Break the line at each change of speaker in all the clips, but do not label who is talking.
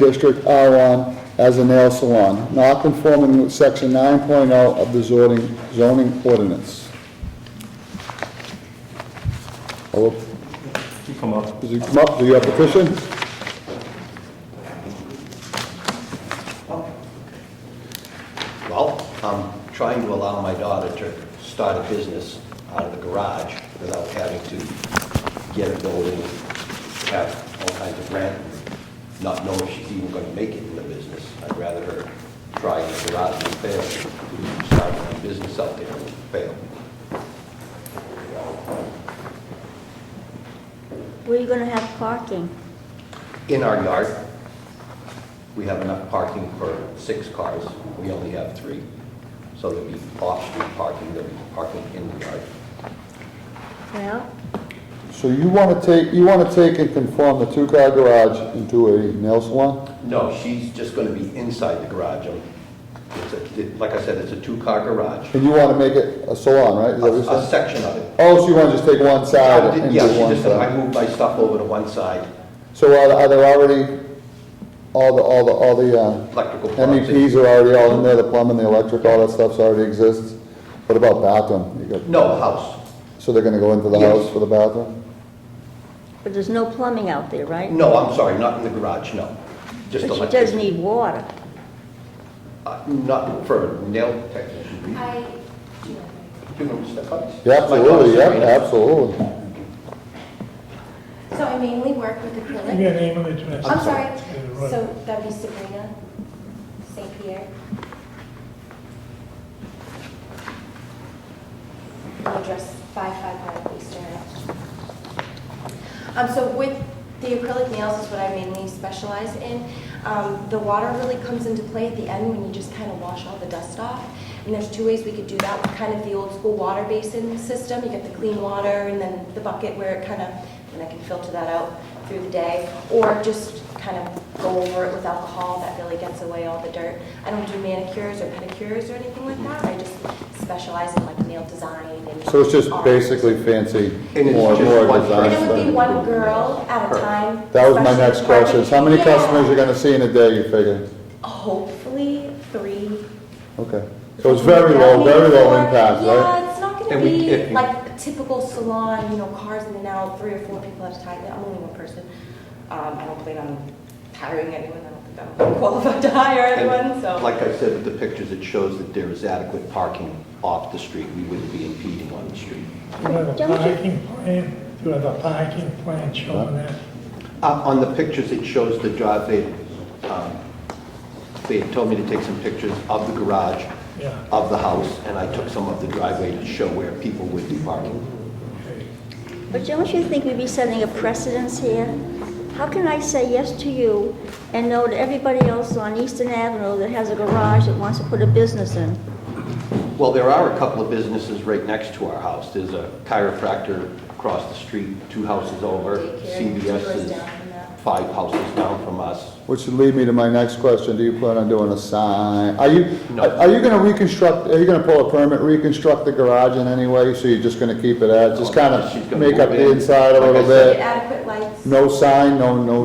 District R1 as a nail salon, not conforming with section 9.0 of the zoning, zoning ordinance. Hello,
You come up.
does it come up, do you have a petition?
Well, I'm trying to allow my daughter to start a business out of the garage without having to get a building, have all kinds of rent, not know if she's even going to make it in the business. I'd rather her try in the garage and fail, than start a business out there and fail.
Where are you gonna have parking?
In our yard, we have enough parking for six cars. We only have three. So there'll be off-street parking, there'll be parking in the yard.
Well,
So you want to take, you want to take and conform the two-car garage into a nail salon?
No, she's just going to be inside the garage. Um, It's a, it- like I said, it's a two-car garage,
And you want to make it a salon, right? Is
a
that what
a
you said?
section of it.
Oh, so you want to just take one side and do
Yeah, she
one
just said, I
side?
moved my stuff over to one side,
So are are there already, all the, all the, all the, uh,
electrical plugs. in.
MEPs are already all in there, the plumbing, the electric, all that stuff's already exists. What about bathroom? You got-
No, house.
So they're gonna go into the
Yes.
house for the bathroom?
but there's no plumbing out there, right?
No, I'm sorry, not in the garage, no. Just
But she
electric.
does need water.
Uh, Not for a nail technician.
I,
Do you want me to step up?
Yeah, absolutely,
My
yeah,
daughter's right now.
absolutely.
so I mainly work with
Give me a
acrylic.
name and address.
I'm sorry,
Yeah, right.
so that'd be Sabrina St. Pierre. And Address 555 Eastern Ave. Um, so with the acrylic nails is what I mainly specialize in. Um, the water really comes into play at the end when you just kind of wash all the dust off. And there's two ways we could do that, kind of the old school water basin system. You get the clean water and then the bucket where it kind of, and I can filter that out through the day. Or just kind of go over it with alcohol, that really gets away all the dirt. I don't do manicures or pedicures or anything like that. I just specialize in like nail design and
So it's just
art.
basically fancy,
And it's
more,
just
more
one-
design
And it would be
stuff.
one girl at a time.
That was my
especially
next
part of-
question, is how many
Yeah.
customers you're gonna see in a day, you figure?
Hopefully, three.
Okay, so it's very low, very low
Four.
impact, right?
Yeah, it's not
And
gonna
we- if
be
you-
like a typical salon, you know, cars in and out, three or four people at a time. I'm only one person. Um, I don't plan on hiring anyone, I don't think I'm qualified to hire
And
anyone, so.
Like I said, with the pictures, it shows that there is adequate parking off the street. We wouldn't be impeding on the street.
Do you have a
Don't you-
parking plan? Do you have a parking plan showing that?
Uh, On the pictures, it shows the drive, they, um, they had told me to take some pictures of the garage,
Yeah.
of the house, and I took some of the driveway to show where people would be parking.
Okay.
But don't you think we'd be setting a precedence here? How can I say yes to you and no to everybody else on Eastern Avenue that has a garage that wants to put a business in?
Well, there are a couple of businesses right next to our house. There's a chiropractor across the street, two houses over.
Daycare,
CVS
two doors
is
down from that.
five houses down from us.
Which would lead me to my next question, do you plan on doing a sign? Are you,
No.
are you gonna reconstruct, are you gonna pull a permit, reconstruct the garage in any way, so you're just gonna keep it as, just kind
Oh, She's
of
gonna
make up
move
the
in.
inside a
Like I
little
said,
bit?
Adequate lights.
No sign, no, no, no,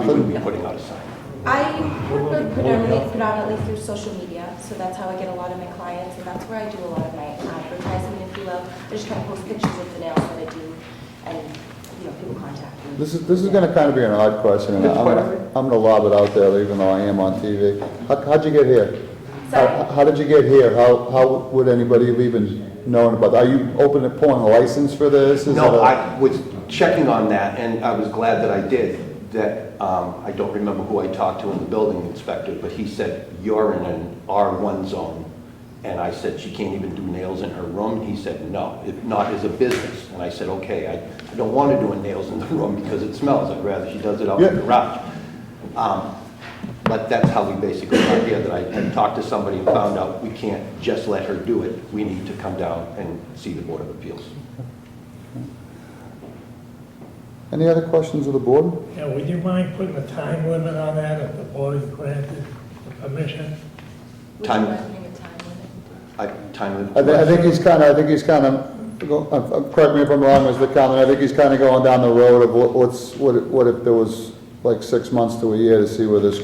We wouldn't be
nothing?
putting out a sign.
I work with predominantly, predominantly through social media, so that's how I get a lot of my clients, and that's where I do a lot of my advertising, if you will. I just try to post pictures of the nails that I do, and, you know, people contact me.
This is, this is gonna kind of be an odd question, and
Good
I'm,
question.
I'm gonna lob it out there, even though I am on TV. How, how'd you get here?
Sorry?
How, how did you get here? How, how would anybody have even known about, are you open to pulling a license for this? Is it
No,
a-
I was checking on that, and I was glad that I did, that, um, I don't remember who I talked to in the building inspector, but he said, "You're in an R1 zone." And I said, "She can't even do nails in her room." And he said, "No, if not as a business." And I said, "Okay, I- I don't want to do her nails in the room because it smells. I'd rather she does it out in
Yeah.
the garage." Um, But that's how we basically got here, that I had talked to somebody and found out, we can't just let her do it. We need to come down and see the Board of Appeals.
Any other questions of the board?
Yeah, would you mind putting a time limit on that if the board granted the permission?
Would you
Time-
mind putting a time limit?
I, time
I
of,
thi- I think he's kind of, I think he's kind of, go- uh, uh, correct me if I'm wrong, Mr. Conlon, I think he's kind of going down the road of what- what's, what if- what if there was like six months to a year to see where this